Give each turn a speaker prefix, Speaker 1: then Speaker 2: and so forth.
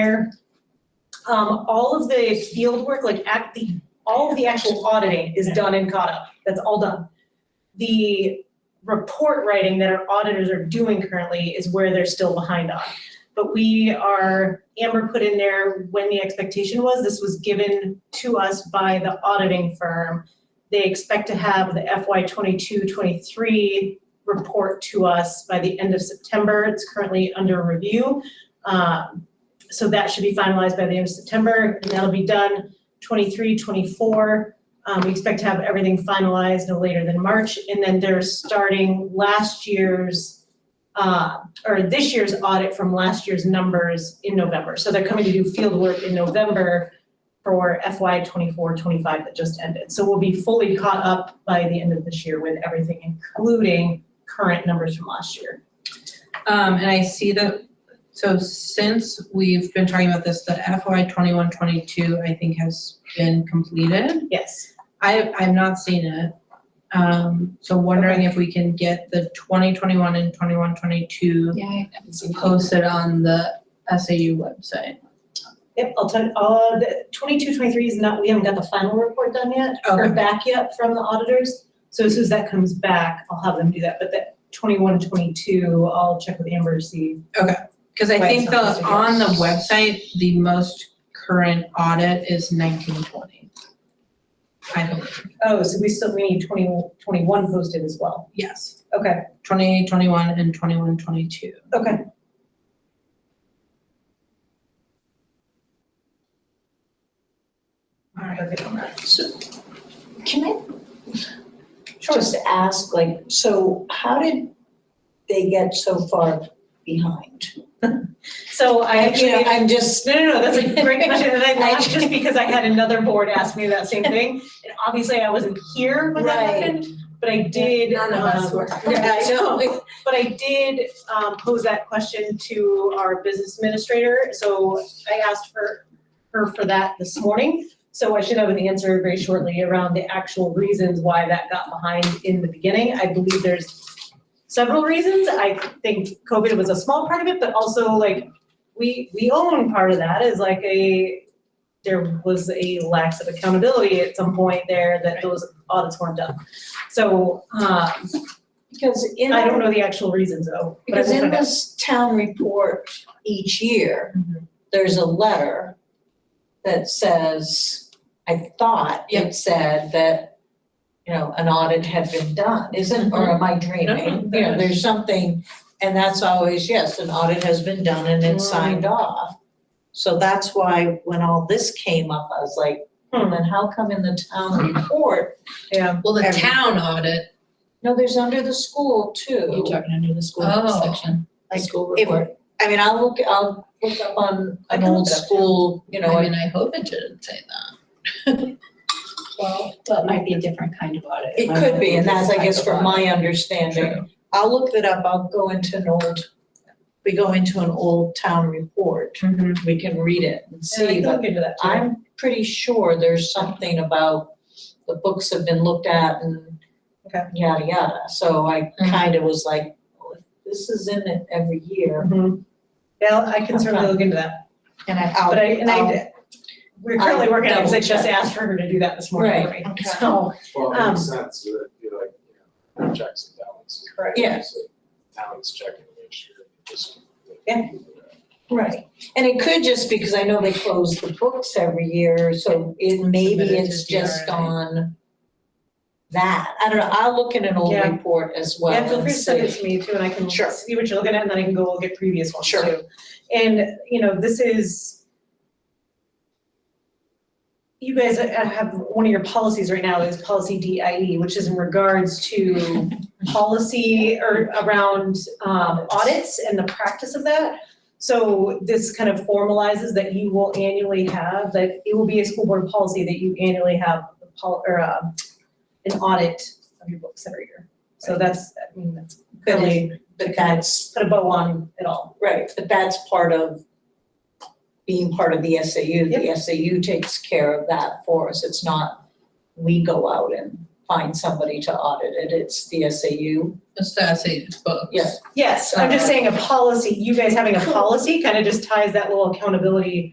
Speaker 1: there. Um, all of the field work, like act, the, all of the actual auditing is done and caught up, that's all done. The report writing that our auditors are doing currently is where they're still behind on. But we are, Amber put in there when the expectation was, this was given to us by the auditing firm. They expect to have the FY 22-23 report to us by the end of September, it's currently under review. Um, so that should be finalized by the end of September, and that'll be done 23, 24. Um, we expect to have everything finalized no later than March, and then they're starting last year's, uh, or this year's audit from last year's numbers in November. So they're coming to do field work in November for FY 24, 25 that just ended. So we'll be fully caught up by the end of this year with everything, including current numbers from last year.
Speaker 2: Um, and I see that, so since we've been talking about this, the FY twenty-one, twenty-two, I think has been completed.
Speaker 1: Yes,
Speaker 2: I, I've not seen it. Um, so wondering if we can get the twenty twenty-one and twenty-one, twenty-two
Speaker 3: Yeah, I haven't seen that.
Speaker 2: posted on the SAU website.
Speaker 1: Yep, I'll tell, uh, the twenty-two, twenty-three is not, we haven't got the final report done yet, or
Speaker 2: Okay.
Speaker 1: back yet from the auditors. So as soon as that comes back, I'll have them do that, but that 21, 22, twenty-two, I'll check with Amber to see.
Speaker 2: Cause I
Speaker 1: Right,
Speaker 2: think
Speaker 1: so it's
Speaker 2: the,
Speaker 1: a
Speaker 2: on the
Speaker 1: yes.
Speaker 2: website, the most current audit is nineteen, twenty. I believe,
Speaker 1: Oh, so we still, we need 20 21 posted as well.
Speaker 2: yes,
Speaker 1: Okay,
Speaker 2: twenty, twenty-one and twenty-one, twenty-two.
Speaker 1: okay.
Speaker 2: All right.
Speaker 3: Can I just ask, like, so how did they get so far behind?
Speaker 1: So I actually.
Speaker 3: You know, I'm just,
Speaker 1: No, no, no, that's a great question, and I
Speaker 3: I-
Speaker 1: laughed just because I had another board ask me that same thing. And obviously I wasn't here when that
Speaker 3: Right.
Speaker 1: happened, but I did, um.
Speaker 3: Yeah, I know.
Speaker 1: But I did um pose that question to our business administrator, so I asked for her for that this morning. So I should have an answer very shortly around the actual reasons why that got behind in the beginning. I believe there's several reasons. I think COVID was a small part of it, but also like we we own part of that is like a there was a lack of accountability at some point there that those audits weren't done. So uh
Speaker 3: Because in,
Speaker 1: I don't know the actual reasons though. but I
Speaker 3: because
Speaker 1: will
Speaker 3: in
Speaker 1: find out.
Speaker 3: this town report each year,
Speaker 4: Mm-hmm.
Speaker 2: Mhm.
Speaker 3: there's a letter that says, I thought
Speaker 2: Yep.
Speaker 3: it said that, you know, an audit had been done, isn't, or am I dreaming?
Speaker 2: no,
Speaker 3: You know,
Speaker 2: no.
Speaker 3: there's something, and that's always, yes, an audit has been done and it's signed
Speaker 4: Mm.
Speaker 3: off. So that's why when all this came up, I was like,
Speaker 1: Hmm.
Speaker 3: then how come in the town report,
Speaker 1: Yeah,
Speaker 4: Well, the
Speaker 2: Every-
Speaker 4: town audit,
Speaker 3: no, there's under the school too.
Speaker 4: you're talking under the school
Speaker 2: Oh.
Speaker 4: section, the
Speaker 3: Like,
Speaker 4: school
Speaker 3: if-
Speaker 4: report.
Speaker 3: I mean, I'll look, I'll look up on
Speaker 1: I
Speaker 3: an
Speaker 1: can look
Speaker 3: old
Speaker 1: it up.
Speaker 3: school, you know,
Speaker 4: I
Speaker 3: and-
Speaker 4: mean, I hope it didn't say that.
Speaker 3: well,
Speaker 4: Well, it might be a different kind of audit.
Speaker 3: it could be, and that's, I guess, from my
Speaker 4: True.
Speaker 3: understanding. I'll look that up, I'll go into an old, we go into an old town report, we can read it and
Speaker 1: and I
Speaker 3: see,
Speaker 1: can
Speaker 3: but
Speaker 1: look into that too.
Speaker 3: I'm pretty sure there's something about the books have been looked at and
Speaker 1: Okay.
Speaker 3: yada, yada, so I
Speaker 4: Mhm.
Speaker 3: kind of was like, "Oh, if this is in it every year,
Speaker 1: Mhm. Yeah, I can certainly look into that,
Speaker 3: and I,
Speaker 1: but I, and
Speaker 3: I'll,
Speaker 1: I, we're currently
Speaker 3: I'll
Speaker 1: working on it, because I
Speaker 3: double
Speaker 1: just
Speaker 3: check.
Speaker 1: asked for her to do that this morning.
Speaker 3: Right, okay.
Speaker 1: So,
Speaker 5: Well, it makes
Speaker 1: Um,
Speaker 5: sense that you like, you know, checks and balances.
Speaker 1: Correct.
Speaker 3: Yeah.
Speaker 5: So Balance checking to make sure. that this-
Speaker 1: Yeah.
Speaker 3: Right, and it could just because I know they close the books every year, so it maybe
Speaker 4: Submit it to
Speaker 3: it's just
Speaker 4: DRA.
Speaker 3: on that, I don't know, I'll look in an old
Speaker 1: Yeah.
Speaker 3: report as well
Speaker 1: yeah, feel
Speaker 3: and
Speaker 1: free to send it
Speaker 3: see.
Speaker 1: to me too, and I can
Speaker 3: Sure.
Speaker 1: see what you're looking at, and then I can go look at previous ones too.
Speaker 3: Sure.
Speaker 1: And, you know, this is you guys have, one of your policies right now is policy DIE, which is in regards to policy or around um audits and the practice of that. So this kind of formalizes that you will annually have, that it will be a school board policy that you annually have a pol- or um an audit of your books every year. So that's, I mean, that's really
Speaker 3: But that's,
Speaker 1: put a bow on it all.
Speaker 3: right, but that's part of being part of the SAU, the SAU takes care of that for us, it's not we go out and find somebody to audit it, it's the SAU.
Speaker 2: It's the essay, it's books.
Speaker 3: Yeah.
Speaker 1: Yes, I'm just saying a policy, you guys having a policy kind of just ties that little accountability